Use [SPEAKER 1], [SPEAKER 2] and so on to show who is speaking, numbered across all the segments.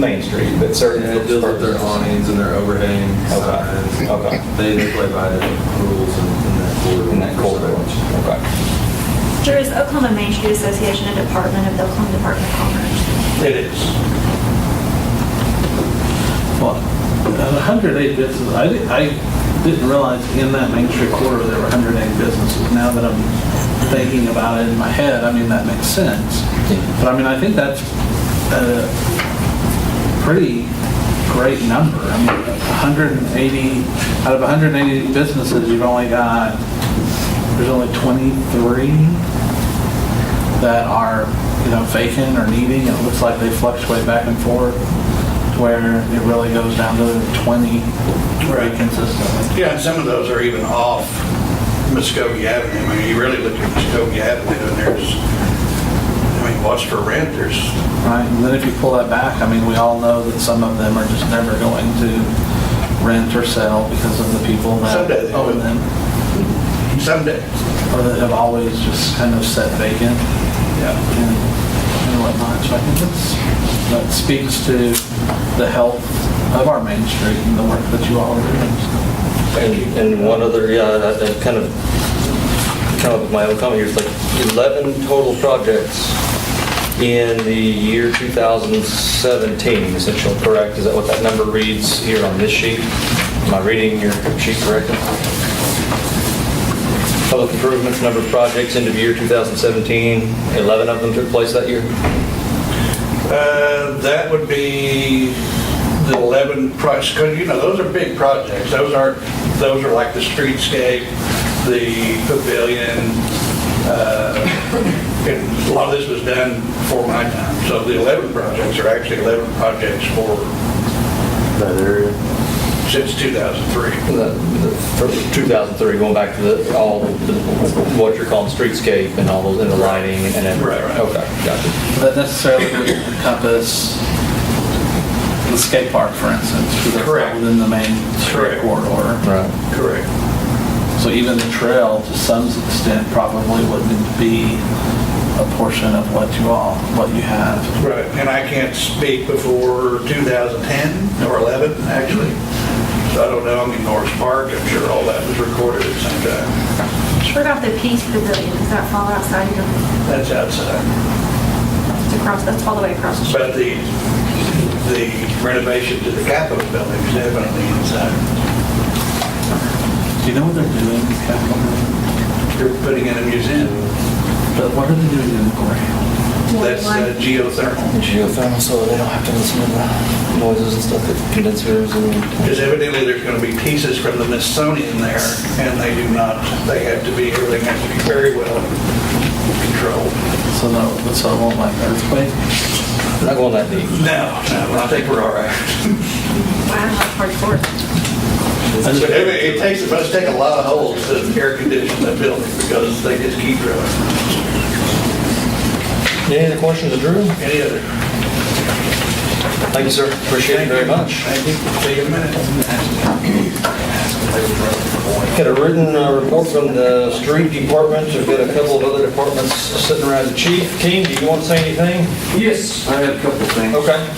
[SPEAKER 1] Main Street, but certain.
[SPEAKER 2] Yeah, it deals with their awnings and their overhang
[SPEAKER 1] Okay,
[SPEAKER 2] signs.
[SPEAKER 1] okay.
[SPEAKER 2] They, they play by the rules in in that corridor.
[SPEAKER 1] In that corridor, okay.
[SPEAKER 3] There is Oklahoma Main Street Association, a department of the Oklahoma Department of Commerce.
[SPEAKER 4] It is. Well, a hundred and eight businesses, I, di- I didn't realize in that Main Street corridor there were hundred and eight businesses. Now that I'm thinking about it in my head, I mean, that makes sense. But I mean, I think that's a pretty great number. I mean, hundred and eighty, out of hundred and eighty businesses, you've only got, there's only twenty-three that are, you know, vacant or needing, it looks like they fluctuate back and forth, to where it really goes down to 20 very
[SPEAKER 5] Right.
[SPEAKER 4] consistently.
[SPEAKER 5] Yeah, and some of those are even off Muskogee Avenue. I mean, you really look at Muskogee Avenue and there's, I mean, what's for rent? There's,
[SPEAKER 4] Right, and then if you pull that back, I mean, we all know that some of them are just never going to rent or sell because of the people that
[SPEAKER 5] Someday they
[SPEAKER 4] own
[SPEAKER 5] will.
[SPEAKER 4] them,
[SPEAKER 5] some days.
[SPEAKER 4] or that have always just kind of sat vacant
[SPEAKER 5] Yeah.
[SPEAKER 4] and and whatnot. So I think that's, that speaks to the health of our Main Street and the work that you all are doing. so.
[SPEAKER 6] And and one other, yeah, I- I kind of, come up with my own comment here, it's like 11 total projects in the year 2017, essential, correct? Is that what that number reads here on this sheet? Am I reading your sheet correctly? Public improvements, number of projects, end of year 2017, 11 of them took place that year?
[SPEAKER 5] Uh, That would be the 11 projects, because, you know, those are big projects. Those aren't, those are like the streetscape, the pavilion, uh, and a lot of this was done before my time. So the 11 projects are actually 11 projects for,
[SPEAKER 6] That area.
[SPEAKER 5] since 2003.
[SPEAKER 6] the- the- for 2003, going back to the, all, the- what you're calling streetscape and all those, and the lighting and everything?
[SPEAKER 5] Right, right.
[SPEAKER 6] Okay, gotcha.
[SPEAKER 4] that necessarily would encompass the skate park, for instance. because that's not
[SPEAKER 5] Correct.
[SPEAKER 4] Within the main street
[SPEAKER 5] Correct.
[SPEAKER 4] corridor.
[SPEAKER 6] Right.
[SPEAKER 5] Correct.
[SPEAKER 4] So even the trail, to some extent, probably wouldn't be a portion of what you all, what you have.
[SPEAKER 5] Right. And I can't speak before 2010 or 11, actually. So I don't know, I mean, Norris Park, I'm sure all that was recorded at some time.
[SPEAKER 3] What about the Peace Pavilion? Does that fall outside your,
[SPEAKER 5] That's outside.
[SPEAKER 3] it's across, that's all the way across the street?
[SPEAKER 5] But the, the renovation to the Capitol building is definitely inside.
[SPEAKER 4] Do you know what they're doing in Capitol Hill?
[SPEAKER 5] They're putting in a museum.
[SPEAKER 4] But what are they doing in the courthouse?
[SPEAKER 5] That's uh, geothermal.
[SPEAKER 6] Geothermal, so they don't have to listen to the noises and stuff, the condensers and...
[SPEAKER 5] Because evidently there's going to be pieces from the Smithsonian there, and they do not, they have to be, everything has to be very well controlled.
[SPEAKER 4] So no, so it won't like earthquake?
[SPEAKER 6] Not going that deep.
[SPEAKER 5] No, no, I think we're all right.
[SPEAKER 3] Wow, that's hardcore.
[SPEAKER 5] But it it takes, it must take a lot of holes to air condition that building, because they just keep drilling.
[SPEAKER 6] Any other questions of Drew?
[SPEAKER 5] Any other?
[SPEAKER 6] Thank you, sir. Appreciate it very much.
[SPEAKER 5] Thank you. Take a minute.
[SPEAKER 6] Got a written uh, report from the street department, we've got a couple of other departments sitting around the chief. King, do you want to say anything?
[SPEAKER 7] Yes, I had a couple of things.
[SPEAKER 6] Okay.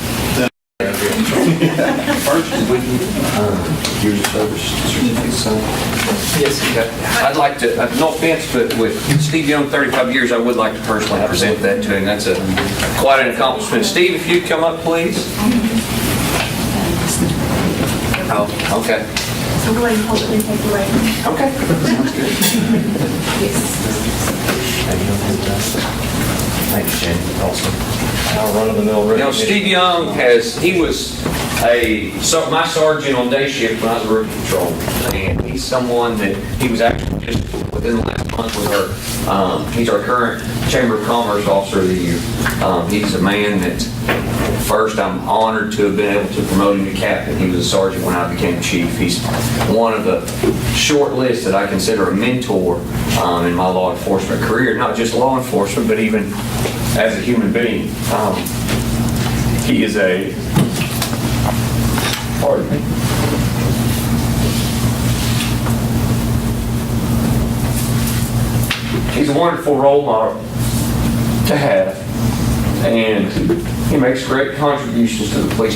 [SPEAKER 7] First, would you, uh, your service certificate, son?
[SPEAKER 6] Yes, okay.
[SPEAKER 7] I'd like to, uh, no offense, but with Steve Young, 35 years, I would like to personally present that to him. That's a, quite an accomplishment. Steve, if you'd come up, please. Oh, okay.
[SPEAKER 3] So go ahead and hold it and take it away.
[SPEAKER 7] Okay. Sounds good.
[SPEAKER 6] Thanks, Shane. Awesome. Our run-of-the-mill
[SPEAKER 7] You know, Steve Young has, he was a, so my sergeant on day shift when I was a rookie patrol. And he's someone that, he was actually just within the last month with our, um, he's our current Chamber of Commerce Officer of the Year. Um, he's a man that, first, I'm honored to have been able to promote him to captain. He was a sergeant when I became chief. He's one of the short list that I consider a mentor, um, in my law enforcement career, not just law enforcement, but even as a human being. Um, he is a, pardon me. He's a wonderful role model to have, and he makes great contributions to the police